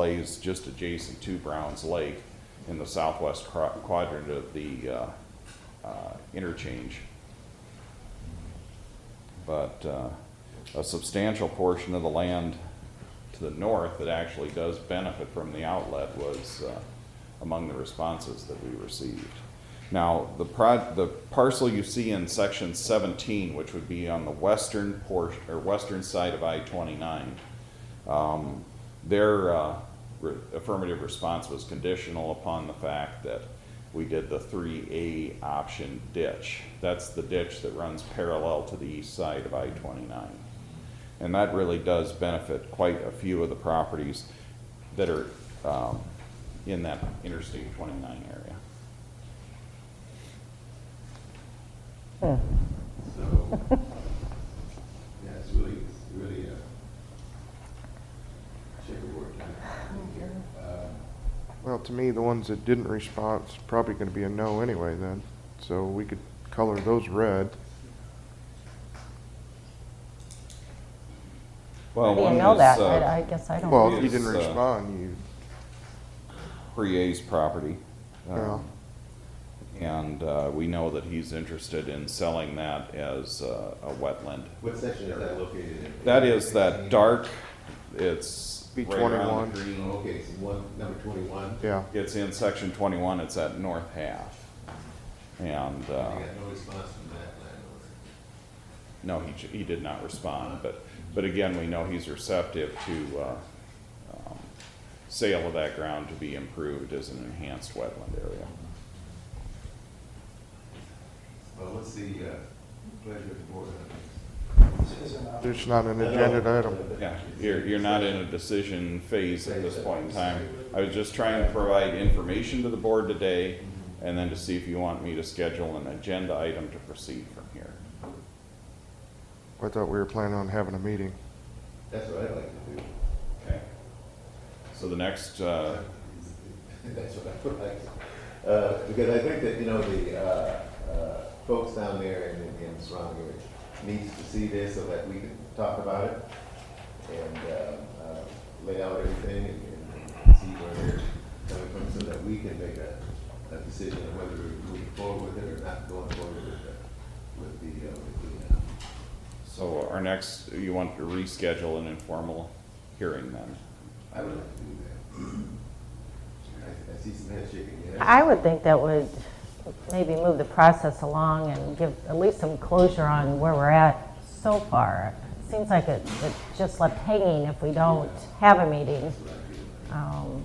lays just adjacent to Browns Lake in the southwest cra- quadrant of the uh, uh, interchange. But uh, a substantial portion of the land to the north that actually does benefit from the outlet was uh, among the responses that we received. Now, the pro, the parcel you see in section seventeen, which would be on the western portion, or western side of I twenty-nine, their uh, re- affirmative response was conditional upon the fact that we did the three A option ditch. That's the ditch that runs parallel to the east side of I twenty-nine. And that really does benefit quite a few of the properties that are um, in that Interstate twenty-nine area. So, yeah, it's really, it's really a checkerboard type thing here. Uh, Well, to me, the ones that didn't respond, it's probably gonna be a no anyway then, so we could color those red. Well, I one didn't know that. is, uh, I, I guess I don't. Well, know. if you didn't Yes, uh, respond, you, Crea's property. um, Yeah. And uh, we know that he's interested in selling that as uh, a wetland. What section is that located in? That is that dark, it's Be right around 21. the green. Oh, Okay, so one, number twenty-one. yeah, It's in section twenty-one, it's at north half. And, I uh, got no response from that landlord. no, he, j- he did not respond, but, but again, we know he's receptive to, uh, um, sale of that ground to be improved as an enhanced wetland area. Well, what's the uh, pleasure of the board? there's not an agenda item. Yeah, you're, you're not in a decision phase at this point in time. I was just trying to provide information to the board today, and then to see if you want me to schedule an agenda item to proceed from here. I thought we were planning on having a meeting. That's what I'd like to do. Okay. So the next, uh, That's what I would like. Uh, because I think that, you know, the, uh, uh, folks down there and in, in the surrounding area needs to see this so that we can talk about it and, uh, uh, lay out everything and, and see where they're coming from so that we can make a, a decision of whether we're moving forward with it or not going forward with the, with the, uh, with the, uh, so our next, you want to reschedule an informal hearing then? I would like to do that. I, I see some head shaking. yeah. I would think that would maybe move the process along and give at least some closure on where we're at so far. It Seems like it, it's just left hanging if we don't have a meeting. Um,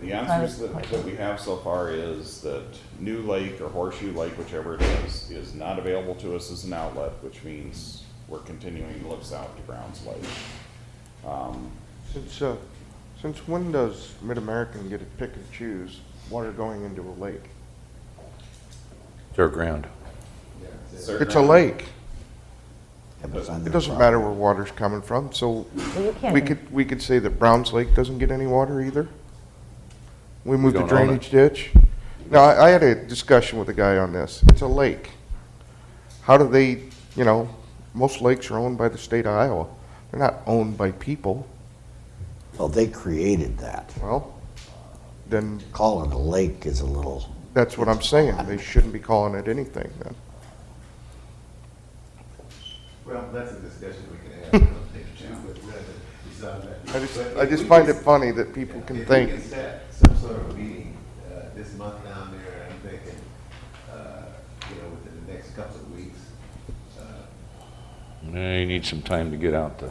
The answers that, that we have so far is that New Lake or Horseshoe Lake, whichever it is, is not available to us as an outlet, which means we're continuing to look south to Browns Lake. Since, uh, since when does Mid-American get to pick and choose water going into a lake? Their ground. Yeah, so- It's a lake. Doesn't- It doesn't matter where water's coming from, so well, you we can't, could, we could say that Browns Lake doesn't get any water either? We moved the don't own it. drainage ditch? No, I, I had a discussion with a guy on this. It's a lake. How do they, you know, most lakes are owned by the state of Iowa. They're not owned by people. Well, they created that. Well, then, Calling a lake is a little, that's what I'm saying. They shouldn't be calling it anything then. Well, that's a discussion we can have. I don't think, too, but rather decide that. I just, But I if just we find it can- funny that people can if we think, can set some sort of meeting uh, this month down there, I'm thinking, uh, you know, within the next couple of weeks. They need some time to get out the,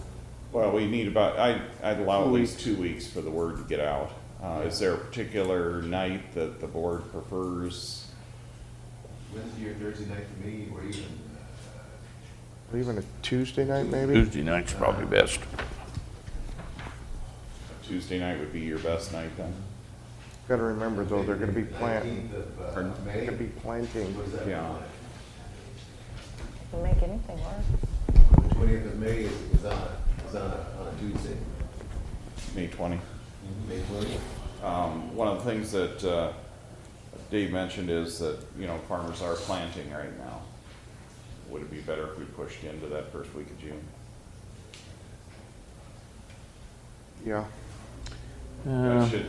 Well, we need about, I, I'd allow at Two least two weeks for the word to get out. Uh, is there a particular night that the board prefers? Wednesday or Thursday night for me, or even, uh, or even a Tuesday night maybe? Tuesday night's probably best. Tuesday night would be your best night then? Gotta remember though, they're gonna be plant, 19th of, uh, Pardon? May. gonna be planting. What is that? Yeah. make anything work. The twentieth of May is, is on, a- is on a, on a Tuesday, May twenty? May twentieth. Um, one of the things that, uh, Dave mentioned is that, you know, farmers are planting right now. Would it be better if we pushed into that first week of June? Yeah, That should